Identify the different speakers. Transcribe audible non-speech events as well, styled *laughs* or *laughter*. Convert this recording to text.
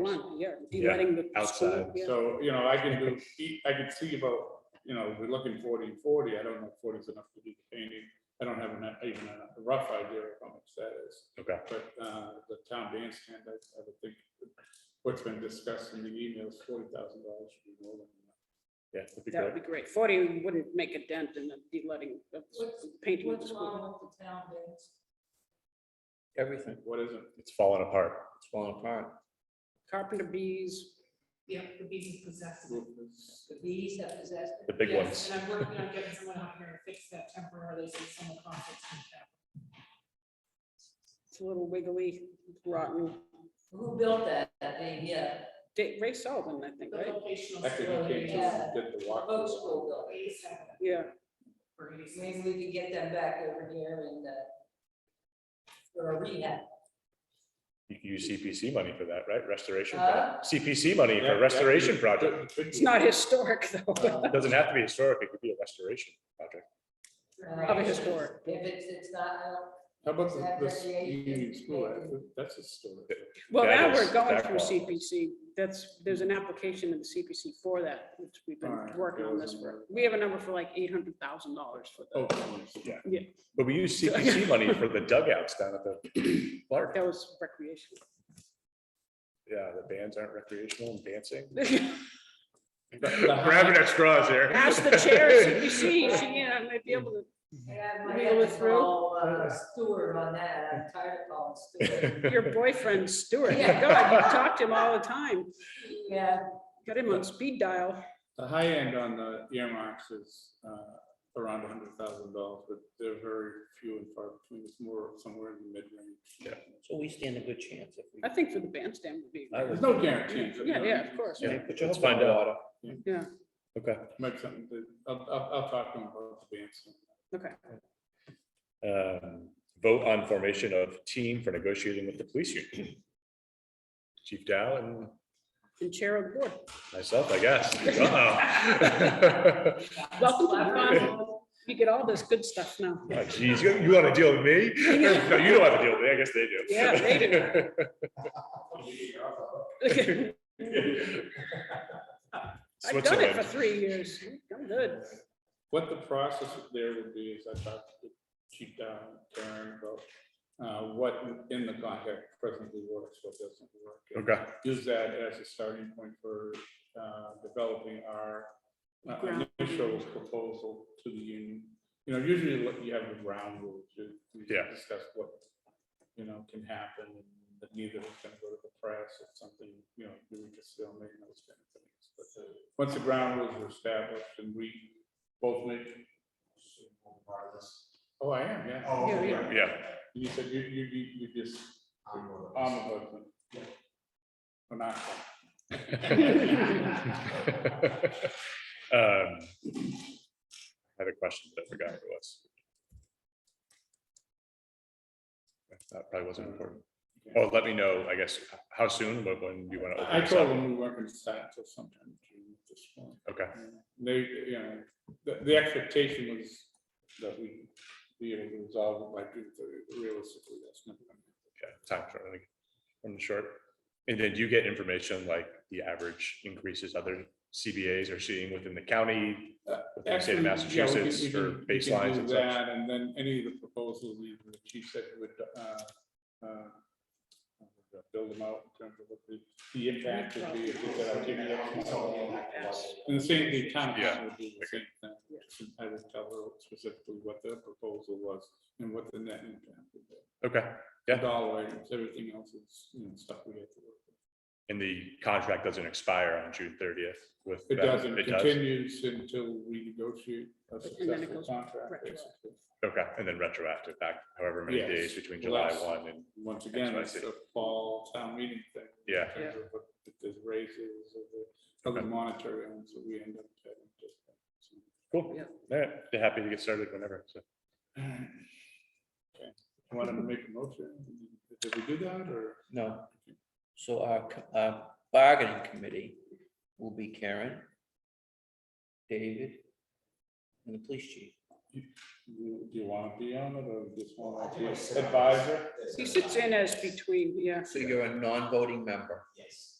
Speaker 1: One, yeah,
Speaker 2: Yeah,
Speaker 1: letting the.
Speaker 2: outside.
Speaker 1: school, yeah.
Speaker 3: So, you know, I can do, E, I could see about, you know, we're looking forty and forty, I don't know if 40 is enough to do the painting. I don't have enough, even a rough idea of how much that is,
Speaker 2: Okay,
Speaker 3: but, uh, the town bandstand, I, I would think what's been discussed in the emails, forty thousand dollars should be more than enough.
Speaker 2: yeah, that'd be
Speaker 1: That would
Speaker 2: great.
Speaker 1: be great. Forty wouldn't make a dent in the de-letting, of
Speaker 4: What's-
Speaker 1: painting of the
Speaker 4: What's
Speaker 1: school.
Speaker 4: wrong with the town bins?
Speaker 5: Everything,
Speaker 3: What is it?
Speaker 2: It's falling apart.
Speaker 5: it's falling apart.
Speaker 1: Carpenter bees,
Speaker 4: Yeah, the bees have possessed it. The bees have possessed it.
Speaker 2: The big
Speaker 4: Yes,
Speaker 2: ones.
Speaker 4: And I'm working on getting someone out here to fix that temporarily, so someone contacts me.
Speaker 1: it's a little wiggly, rotten.
Speaker 6: Who built that, that thing, yeah,
Speaker 1: Da- Ray Sullivan, I think,
Speaker 4: The
Speaker 6: Oh.
Speaker 1: right?
Speaker 4: vocational
Speaker 3: Actually, you
Speaker 4: facility.
Speaker 3: can't just get the walk.
Speaker 6: boat
Speaker 1: Oh.
Speaker 6: school building.
Speaker 4: Bees have it
Speaker 1: Yeah,
Speaker 4: for bees.
Speaker 6: Maybe we could get them back over here and, uh, for a rehab.
Speaker 2: You can use CPC money for that, right? Restoration, pro-
Speaker 6: Huh?
Speaker 2: CPC money
Speaker 3: Yeah,
Speaker 2: for
Speaker 3: yeah,
Speaker 2: restoration
Speaker 3: it
Speaker 2: project.
Speaker 3: *laughs* could- it could
Speaker 1: it's
Speaker 3: be. Uh,
Speaker 1: not historic though.
Speaker 2: It Doesn't have to be historic, it could be a restoration project.
Speaker 1: Of a historic.
Speaker 6: If it's, it's not, uh,
Speaker 3: How about
Speaker 6: Is that
Speaker 3: the, this
Speaker 6: recreation?
Speaker 3: union school, That- that's a story.
Speaker 1: *laughs* Well,
Speaker 2: That
Speaker 1: now
Speaker 2: is
Speaker 1: we're going through
Speaker 2: backlog.
Speaker 1: CPC. That's, there's an application in the CPC for that, which we've been
Speaker 3: Alright,
Speaker 1: working
Speaker 3: there
Speaker 1: on
Speaker 3: was
Speaker 1: this
Speaker 3: another.
Speaker 1: for. We have a number for like eight hundred thousand dollars for
Speaker 3: Oh,
Speaker 1: that.
Speaker 3: yeah.
Speaker 2: But we use CPC money for the dugouts down at the park.
Speaker 1: That was
Speaker 2: *laughs*
Speaker 1: recreation. *laughs*
Speaker 2: Yeah, the bands aren't recreational and dancing.
Speaker 3: Grabbing
Speaker 2: at straws here.
Speaker 1: Ask the chair,
Speaker 2: *laughs*
Speaker 1: CPC, she, yeah, might be able to
Speaker 6: I have my
Speaker 1: Wheel
Speaker 6: head
Speaker 1: it
Speaker 6: is
Speaker 1: through?
Speaker 6: all, uh, Stewart on that, I'm tired of calling
Speaker 2: *laughs*
Speaker 6: Stewart.
Speaker 5: *laughs*
Speaker 1: Your boyfriend Stuart, my
Speaker 6: Yeah.
Speaker 1: God, you talk to him all the time.
Speaker 6: Yeah,
Speaker 1: Got him on speed dial.
Speaker 3: The high end on the earmarks is uh, around hundred thousand dollars, but they're very few and far between. It's more somewhere in the mid-range.
Speaker 2: Yeah.
Speaker 5: So we stand a good chance if we.
Speaker 1: I think for the bandstand would be.
Speaker 5: I
Speaker 3: There's
Speaker 5: would-
Speaker 3: no guarantee.
Speaker 1: Yeah, yeah, of course.
Speaker 2: Yeah,
Speaker 5: Yeah, put your
Speaker 2: let's
Speaker 5: hope in
Speaker 2: find
Speaker 5: the
Speaker 2: out.
Speaker 1: Yeah.
Speaker 2: Okay.
Speaker 3: Make something, that- I'll, I'll, I'll talk to them about the bands.
Speaker 1: Okay.
Speaker 2: Um, Vote on formation of team for negotiating with the police union. Chief Dow and
Speaker 1: And chair of the board.
Speaker 2: myself, I guess. Wow.
Speaker 1: Welcome to
Speaker 6: 啊
Speaker 1: the Commonwealth. You get all this good stuff now.
Speaker 2: *laughs* Oh, Geez, you you want to deal with me? No, you don't have to deal with me. I guess they do.
Speaker 1: Yeah, they
Speaker 2: *laughs*
Speaker 1: do. *laughs* I've done it for
Speaker 2: Switzerland.
Speaker 1: three years. I'm good.
Speaker 3: What the process there would be is I talked to Chief Down, Karen, about uh, what in the contract presently works, what doesn't work. and
Speaker 2: Okay,
Speaker 3: Use that as a starting point for uh, developing our uh,
Speaker 1: Ground
Speaker 3: initial proposal to the union. You know, usually what you have the ground rules, you you
Speaker 2: Yeah.
Speaker 3: discuss what, you know, can happen, and that neither is gonna go to the press if something, you know, we can still make those kind of things. But uh, once the ground rules are established and we both make. Oh, I am, yeah.
Speaker 1: Yeah, okay. yeah.
Speaker 2: yeah. *laughs*
Speaker 3: You said you, you, you, you just. I'm a voter. Or not.
Speaker 2: *laughs*
Speaker 3: *laughs*
Speaker 2: Um, I had a question, but I forgot what it was. That probably wasn't important. Oh, let me know, I guess, how soon, but when you want to open
Speaker 3: I
Speaker 2: this
Speaker 3: told
Speaker 2: up.
Speaker 3: them we weren't gonna start till sometime in June at this point.
Speaker 2: Okay,
Speaker 3: They, you know, the, the expectation was that we be able to resolve it by June thirty, realistically, that's not. gonna happen.
Speaker 2: yeah, time short, I think, from the short. And then do you get information like the average increases other CBAs are seeing within the county, within the state of
Speaker 3: Uh, Actually, yeah, we can-
Speaker 2: Massachusetts
Speaker 3: we
Speaker 2: for
Speaker 3: can- we can
Speaker 2: baselines
Speaker 3: do
Speaker 2: and such?
Speaker 3: that, And then any of the proposals, even the chief said would, uh, uh, build them out in terms of what the, the impact would be. if we said, "I'll give you X amount." And the same, the town
Speaker 2: Yeah.
Speaker 3: council would do the same thing. I would tell her specifically what their proposal was and what the net impact would be.
Speaker 2: Okay,
Speaker 3: The
Speaker 2: Yeah.
Speaker 3: Dollar items, everything else is, you know, stuff we have to work with.
Speaker 2: and the contract doesn't expire on June thirtieth with.
Speaker 3: It
Speaker 2: them?
Speaker 3: doesn't,
Speaker 2: It
Speaker 3: it
Speaker 2: does?
Speaker 3: continues until we negotiate
Speaker 1: then
Speaker 3: a
Speaker 1: it
Speaker 3: successful
Speaker 1: goes
Speaker 3: contract.
Speaker 1: retroactive.
Speaker 3: basically.
Speaker 2: Okay, and then retroactive back however many
Speaker 3: Yes.
Speaker 2: days between
Speaker 3: Well,
Speaker 2: July
Speaker 3: that's-
Speaker 2: one and,
Speaker 3: Once again,
Speaker 2: That's
Speaker 3: it's
Speaker 2: what I
Speaker 3: a fall town meeting thing. in
Speaker 2: Yeah.
Speaker 3: terms of what- If there's raises or the, of the
Speaker 2: Okay.
Speaker 3: monetary ones that we end up having. to-
Speaker 2: cool.
Speaker 1: Yeah.
Speaker 2: All right, they're happy to get started whenever, so.
Speaker 3: Okay. Want to make a motion? Did we do that or?
Speaker 5: No. So our, co- our bargaining committee will be Karen, David, and the police chief.
Speaker 3: you- Do you want to be on it or just want to be advisor?
Speaker 1: He sits in as between, yeah.
Speaker 5: So you're a non-voting member.
Speaker 7: Yes.